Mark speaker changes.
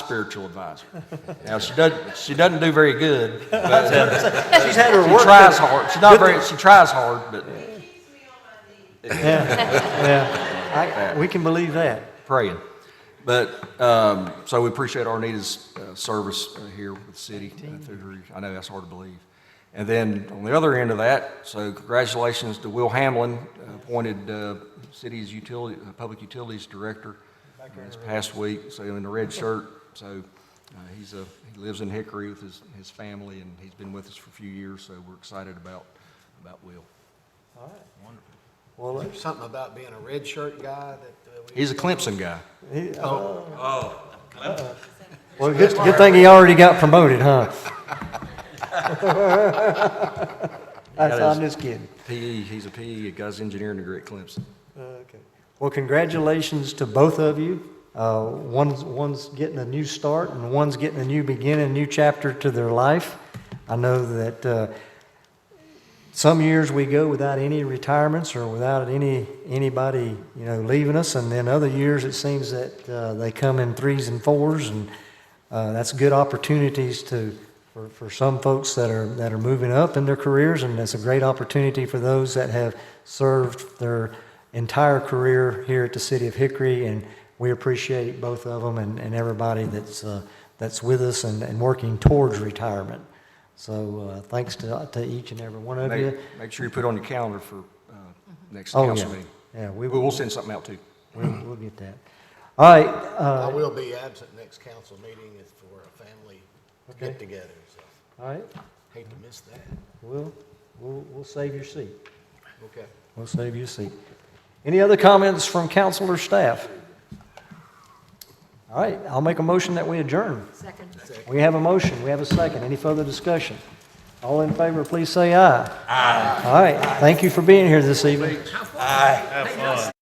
Speaker 1: spiritual advisor. Now, she doesn't, she doesn't do very good, but
Speaker 2: She's had her
Speaker 1: she
Speaker 2: work.
Speaker 1: tries hard. She's not very, she tries hard, but
Speaker 2: I- We can believe that.
Speaker 1: praying. But, um, so we appreciate Arnita's uh, service uh, here with the city uh, through her, I know that's hard to believe. And then on the other end of that, so congratulations to Will Hamlin, uh, appointed uh, city's utility, uh, public utilities director uh, this past week, so in the red shirt. So uh, he's a, he lives in Hickory with his, his family, and he's been with us for a few years, so we're excited about, about Will.
Speaker 2: Well,
Speaker 3: There's something about being a red shirt guy that uh, we.
Speaker 1: He's a Clemson guy.
Speaker 2: he- uh, well, good, good thing he already got promoted, huh? I- I'm just kidding.
Speaker 1: PE, E, he's a PE, a guy's engineering degree at Clemson.
Speaker 2: Okay. Well, congratulations to both of you. Uh, one's, one's getting a new start, and one's getting a new beginning, a new chapter to their life. I know that uh, some years we go without any retirements or without any anybody you know leaving us, and then other years it seems that uh, they come in threes and fours, and uh, that's good opportunities to for, for some folks that are that are moving up in their careers, and that's a great opportunity for those that have served their entire career here at the City of Hickory, and we appreciate both of them and, and everybody that's uh, that's with us and, and working towards retirement. So uh, thanks to, to each and every one of you.
Speaker 1: Make, make sure you put it on your calendar for uh, next
Speaker 2: Oh,
Speaker 1: council
Speaker 2: yeah.
Speaker 1: meeting.
Speaker 2: Yeah, we
Speaker 1: We
Speaker 2: will,
Speaker 1: will
Speaker 2: we'll,
Speaker 1: send something out too.
Speaker 2: we'll get that. All right, uh,
Speaker 3: I will be absent next council meeting is for a family
Speaker 2: Okay.
Speaker 3: get-together, so
Speaker 2: all right,
Speaker 3: hate to miss that.
Speaker 2: we'll, we'll, we'll save your seat.
Speaker 3: Okay.
Speaker 2: We'll save your seat. Any other comments from council or staff? All right, I'll make a motion that we adjourn.
Speaker 4: Second.
Speaker 2: We have a motion, we have a second. Any further discussion? All in favor, please say aye. Aye. All right, thank you for being here this evening.
Speaker 4: Thank